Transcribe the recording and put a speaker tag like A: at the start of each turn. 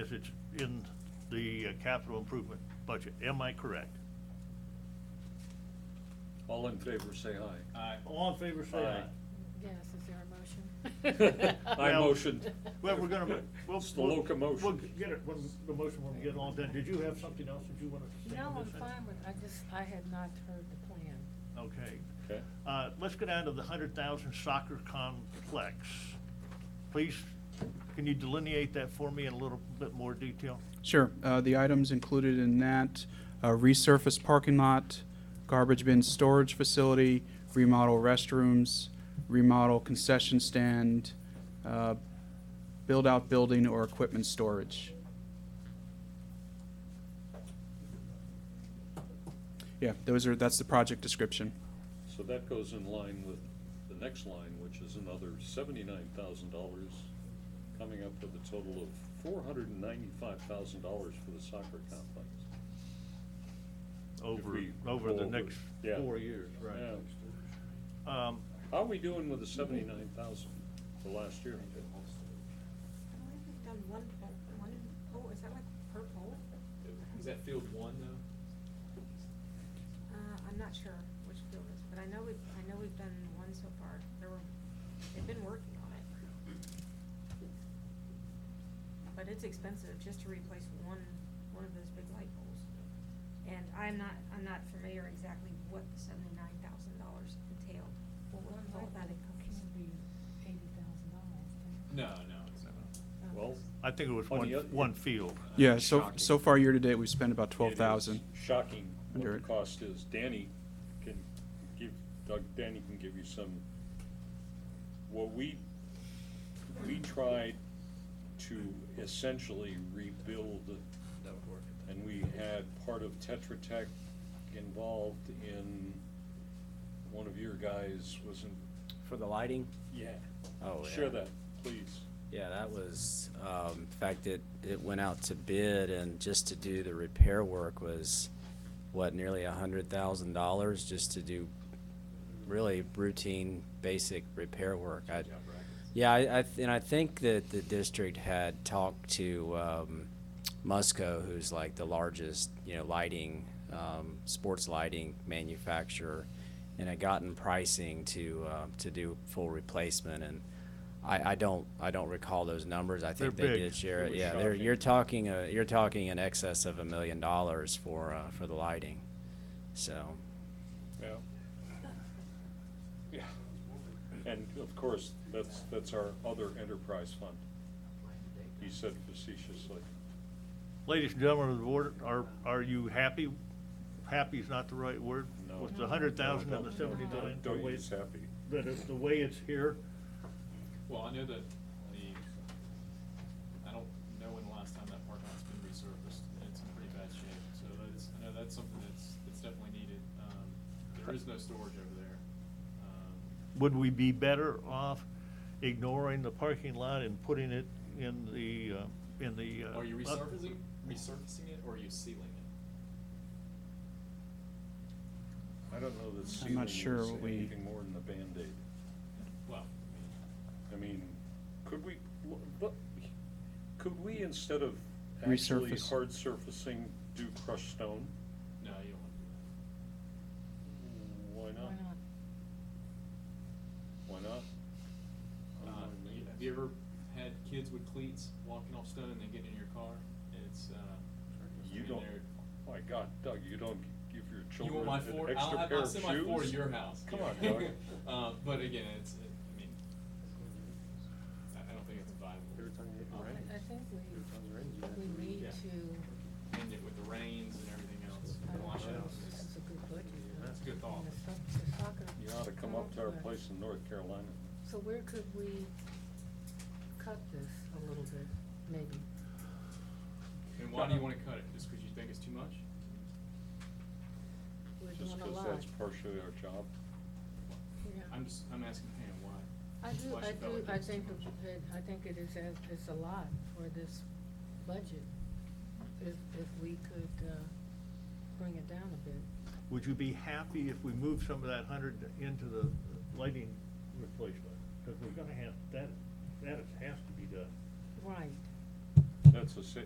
A: as it's in the uh, capital improvement budget. Am I correct?
B: All in favor, say aye.
A: All in favor, say aye.
B: Aye.
C: Yes, is there a motion?
B: I
A: Well-
B: motioned.
A: Well, we're gonna, we'll.
B: It's the
A: we'll-
B: locomotion.
A: We'll get it, when the motion, when we get it all done. Did you have something else that you wanted to say?
C: No,
A: on
C: I'm
A: this
C: fine with, I just, I had not heard the plan.
A: item? Okay.
B: Okay.
A: Uh, let's go down to the hundred thousand soccer complex. Please, can you delineate that for me in a little bit more detail?
D: Sure. Uh, The items included in that, uh, resurface parking lot, garbage bin storage facility, remodel restrooms, remodel concession stand, uh, build-out building or equipment storage. Yeah, those are, that's the project description.
B: So that goes in line with the next line, which is another seventy-nine thousand dollars, coming up with a total of four hundred and ninety-five thousand dollars for the soccer complex. If
A: Over,
B: we
A: over the
B: go
A: next
B: yeah.
A: four years, right?
B: Yeah.
A: Um,
B: How are we doing with the seventy-nine thousand for last year?
E: Why have we done one pole, one pole, is that like per pole?
F: Is that field one though?
E: Uh, I'm not sure which field it is, but I know we've, I know we've done one so far, there were, they've been working on it. But it's expensive just to replace one, one of those big light poles. And I'm not, I'm not familiar exactly what the seventy-nine thousand dollars entailed, or what all that encompasses.
C: Can be eighty thousand dollars.
F: No, no, it's not.
B: Well,
A: I think it was
B: On
A: one,
B: the oth-
A: one field.
D: Yeah, so,
F: Shocking.
D: so far year-to-date, we've spent about
B: Uh, It is
D: 12,000.
B: Shocking what
D: Under
B: the
D: it.
B: cost is. Danny can give, Doug, Danny can give you some, well, we, we tried to essentially rebuild,
F: That would work.
B: and we had part of Tetra Tech involved in, one of your guys was in,
G: For the lighting?
B: yeah.
G: Oh,
B: Share
G: yeah.
B: that, please.
G: Yeah, that was, um, in fact, it, it went out to bid and just to do the repair work was, what, nearly a hundred thousand dollars just to do really routine, basic repair work. I, yeah, I, I, th- and I think that the district had talked to, um, Musco, who's like the largest, you know, lighting, um, sports lighting manufacturer, and had gotten pricing to, uh, to do full replacement, and I, I don't, I don't recall those numbers, I think
A: They're
G: they
A: big.
G: did share
B: It
G: it,
B: was
G: yeah, they're,
B: shocking.
G: you're talking, uh, you're talking in excess of a million dollars for, uh, for the lighting, so.
B: Yeah. Yeah. And of course, that's, that's our other enterprise fund. He said facetiously.
A: Ladies and gentlemen of the board, are, are you happy? Happy is not the right word.
B: No.
A: With the hundred thousand and the
B: Don't-
A: seventy
B: don't-
A: million, the
B: Don't
A: way,
B: use happy.
A: that is the way it's here.
F: Well, I know that the, I don't know when the last time that parking lot's been resurfaced, and it's in pretty bad shape, so that's, I know that's something that's, that's definitely needed. Um, there is no storage over there. Um,
A: Would we be better off ignoring the parking lot and putting it in the, uh, in the? uh,
F: Are you
A: up-
F: resurfacing, resurfacing it, or are you sealing it?
B: I don't know that
D: I'm
B: ceiling
D: not sure
B: is
D: what we-
B: anything more than a Band-Aid.
F: Well, I mean,
B: I mean, could we, but, could we instead of actually
D: Resurface.
B: hard surfacing, do crushed stone?
F: no, you don't want to do that.
B: Why not?
C: Why not?
B: Why not? I don't
F: Uh,
B: know,
F: you-
B: Oh, maybe.
F: Have you ever had kids with cleats walking off stone and they get in your car? It's, uh. I
B: You
F: mean,
B: don't,
F: they're-
B: my God, Doug, you don't give your
F: You
B: children
F: want my
B: an
F: four?
B: extra
F: I'll, have-
B: pair
F: I'll
B: of shoes?
F: send my four to your house.
B: Come on, Doug.
F: Uh, but again, it's, it- I mean, I, I don't think it's viable.
B: Every time you hit
F: Uh,
B: the rain.
C: I I think
B: Sounds right, you have
C: we, we need
F: Yeah.
C: to,
F: And it with the rains and everything else,
C: I don't know,
F: wash out.
C: that's a good budget. huh?
F: That's a good thought.
C: And the soc- the soccer
B: You ought to come up to our
C: complex.
B: place in North Carolina.
C: So where could we cut this a little bit, maybe?
F: And why do you wanna cut it? Just because you think it's too much?
C: We're
B: Just
C: doing a
B: because
C: lot.
B: that's partially our job.
C: Yeah.
F: I'm just, I'm asking Pam why.
C: I do,
F: Why she
C: I
F: felt
C: do,
F: like it
C: I
F: was too
C: think,
F: much.
C: it- I think it is, as- it's a lot for this budget, if, if we could, uh, bring it down a bit.
A: Would you be happy if we moved some of that hundred into the lighting replacement? Because we're gonna have, that, that has to be done.
C: Right.
B: That's a, sa-